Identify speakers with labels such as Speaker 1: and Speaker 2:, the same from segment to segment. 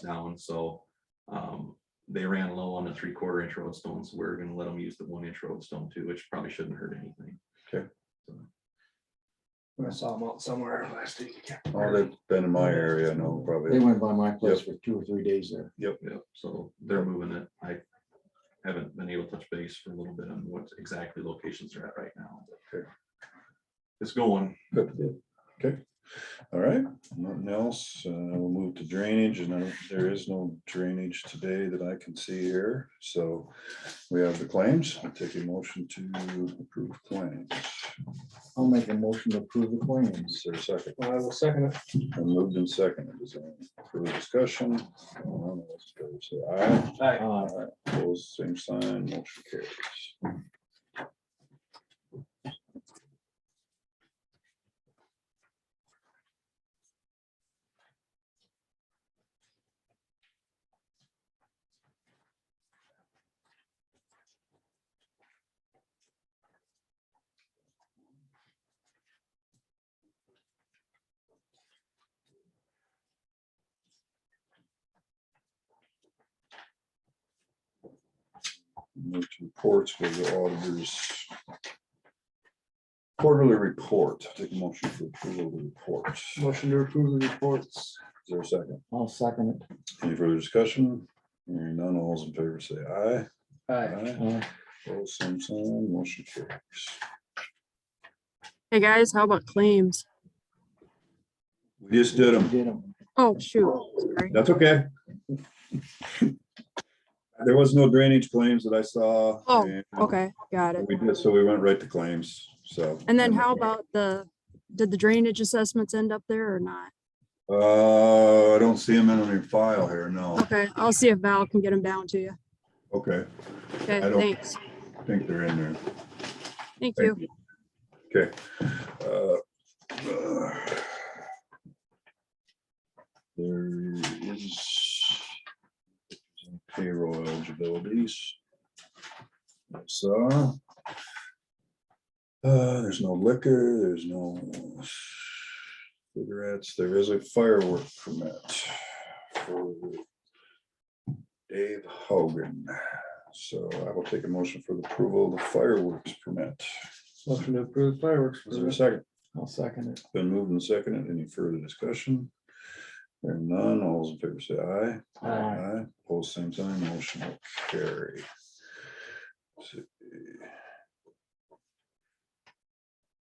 Speaker 1: down, so. Um, they ran low on the three quarter inch road stone, so we're gonna let them use the one inch road stone too, which probably shouldn't hurt anything.
Speaker 2: I saw them out somewhere last week. I can't
Speaker 3: Oh,
Speaker 2: remember.
Speaker 3: they've been in my area, no,
Speaker 4: They
Speaker 3: probably.
Speaker 4: went by my place for two or three days there.
Speaker 1: Yep, so they're moving it. I haven't been able to touch base for a little bit on what exactly locations they're at right now. but
Speaker 3: Okay.
Speaker 1: It's going.
Speaker 3: Good. Okay, all right, nothing else, uh, we'll move to drainage, and there- there is no drainage today that I can see here, so we have the claims, I'll take a motion to approve claims.
Speaker 4: I'll make a motion to approve the claims.
Speaker 3: Is there a second?
Speaker 2: I will second it.
Speaker 3: And Moved and seconded. Is there any further discussion? None. All those in favor say Aye.
Speaker 4: Uh,
Speaker 3: Aye. Opposed, same sign, motion carries. Move to reports, go to the auditors. Quarterly report, take a motion for approval of the report. Is
Speaker 2: Motion to approve the reports.
Speaker 3: there a second?
Speaker 4: I'll second it.
Speaker 3: Any further discussion? Hearing none, all those in favor say aye.
Speaker 4: Uh,
Speaker 3: Opposed, same sign, motion carries.
Speaker 5: Hey guys, how about claims?
Speaker 3: We just did them.
Speaker 4: Did 'em.
Speaker 5: Oh, shoot, sorry.
Speaker 3: That's okay. There was no drainage claims that I saw.
Speaker 5: Oh,
Speaker 3: and
Speaker 5: Okay, got it.
Speaker 3: We did, so we went right to claims, so.
Speaker 5: And then how about the, did the drainage assessments end up there or not?
Speaker 3: Uh, I don't see them in any file here, no.
Speaker 5: Okay, I'll see if Val can get them down to you.
Speaker 3: Okay,
Speaker 5: Okay,
Speaker 3: I don't-
Speaker 5: thanks.
Speaker 3: I think they're in there.
Speaker 5: Thank
Speaker 3: Thank
Speaker 5: you.
Speaker 3: Okay. uh, uh, There is payroll eligibilities. So. Uh, there's no liquor, there's no cigarettes, there is a firework permit for Dave Hogan. So I will take a motion for the approval of the fireworks permit.
Speaker 2: Motion to approve fireworks.
Speaker 3: Is there a second?
Speaker 4: I'll second it.
Speaker 3: Been moved and seconded. Any further discussion? Hearing none, all those in favor say aye.
Speaker 4: Aye.
Speaker 3: Pose same sign, motion will carry.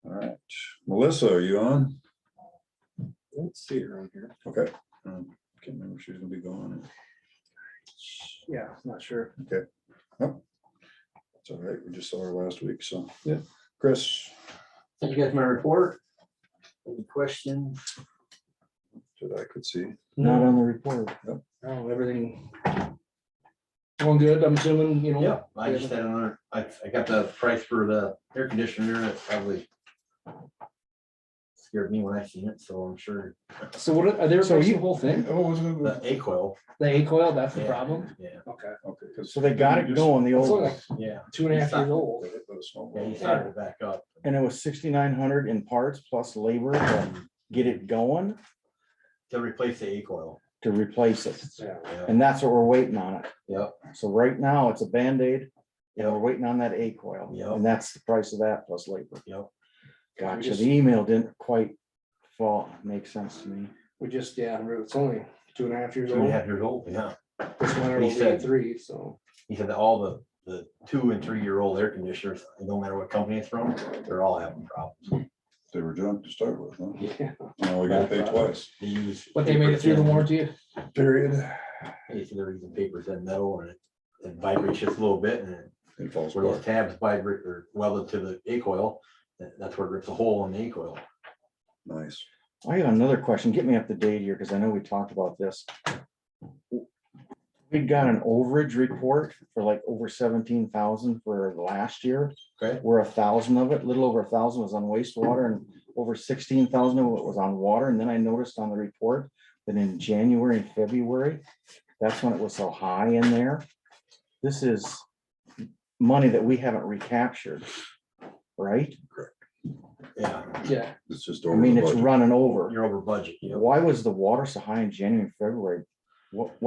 Speaker 3: All right, Melissa, are you on?
Speaker 2: Let's see her on here.
Speaker 3: Okay. Um, Can't remember if she's gonna be gone.
Speaker 2: Yeah, not sure.
Speaker 3: It's all right, we just saw her last week, so.
Speaker 2: Yeah.
Speaker 3: Chris,
Speaker 6: Thank you guys for my report. Any question?
Speaker 3: that I could see.
Speaker 4: Not on the report.
Speaker 2: No, everything. Oh, Going good, I'm assuming, you know.
Speaker 6: Yep, I just had another, I, I got the price for the air conditioner, and it probably scared me when I seen it, so I'm sure
Speaker 2: So what, are they replacing the whole thing?
Speaker 3: Oh, was it?
Speaker 6: the A coil.
Speaker 2: The A coil, that's the problem?
Speaker 6: Yeah,
Speaker 2: Okay.
Speaker 3: Okay. 'cause
Speaker 4: So they got it going, the
Speaker 2: It's
Speaker 4: old,
Speaker 2: only
Speaker 4: one,
Speaker 2: like
Speaker 6: yeah,
Speaker 2: two and a half years old.
Speaker 3: Let us know.
Speaker 6: yeah, he started it back up.
Speaker 4: and it was sixty-nine hundred in parts plus labor to get it going
Speaker 6: To replace the A coil.
Speaker 4: to replace it.
Speaker 2: Yeah.
Speaker 6: Yeah,
Speaker 4: And that's what we're waiting on it.
Speaker 6: Yep.
Speaker 4: So right now, it's a Band-Aid, and we're
Speaker 6: Yep.
Speaker 4: waiting on that A coil.
Speaker 6: Yep.
Speaker 4: And that's the price of that plus labor.
Speaker 6: Yep.
Speaker 4: Gotcha,
Speaker 2: just-
Speaker 4: the email didn't quite fall, make sense to me.
Speaker 2: We just, yeah, it's only two and a half years
Speaker 6: two and a
Speaker 2: old.
Speaker 6: half years old, yeah.
Speaker 2: This winter
Speaker 6: He
Speaker 2: will be
Speaker 6: said-
Speaker 2: three, so.
Speaker 6: He said that all the, the two and three year old air conditioners, no matter what company it's from, they're all having problems.
Speaker 3: They were junk to start with, huh?
Speaker 2: Yeah.
Speaker 3: Now we gotta pay twice.
Speaker 6: They use.
Speaker 2: But they made it through the warranty?
Speaker 3: Period.
Speaker 6: They said they're using papers and metal and it- it vibrates just a little bit and it
Speaker 3: It falls
Speaker 6: where those
Speaker 3: apart.
Speaker 6: tabs vibrate or welded to the A coil, that- that's where it rips a hole in the A coil.
Speaker 3: Nice.
Speaker 4: I got another question. Get me up to date here, because I know we talked about this. We got an overage report for like over seventeen thousand for last year.
Speaker 6: Okay.
Speaker 4: Where a thousand of it, little over a thousand was on wastewater and over sixteen thousand of it was on water. And then I noticed on the report that in January and February, that's when it was so high in there. This is money that we haven't recaptured, right?
Speaker 6: Yeah,
Speaker 2: Yeah.
Speaker 3: It's just.
Speaker 4: I
Speaker 3: over
Speaker 4: mean,
Speaker 3: the
Speaker 4: it's
Speaker 3: budget.
Speaker 4: running over.
Speaker 6: you're over budget, you know.
Speaker 4: Why was the water so high in January and February? What,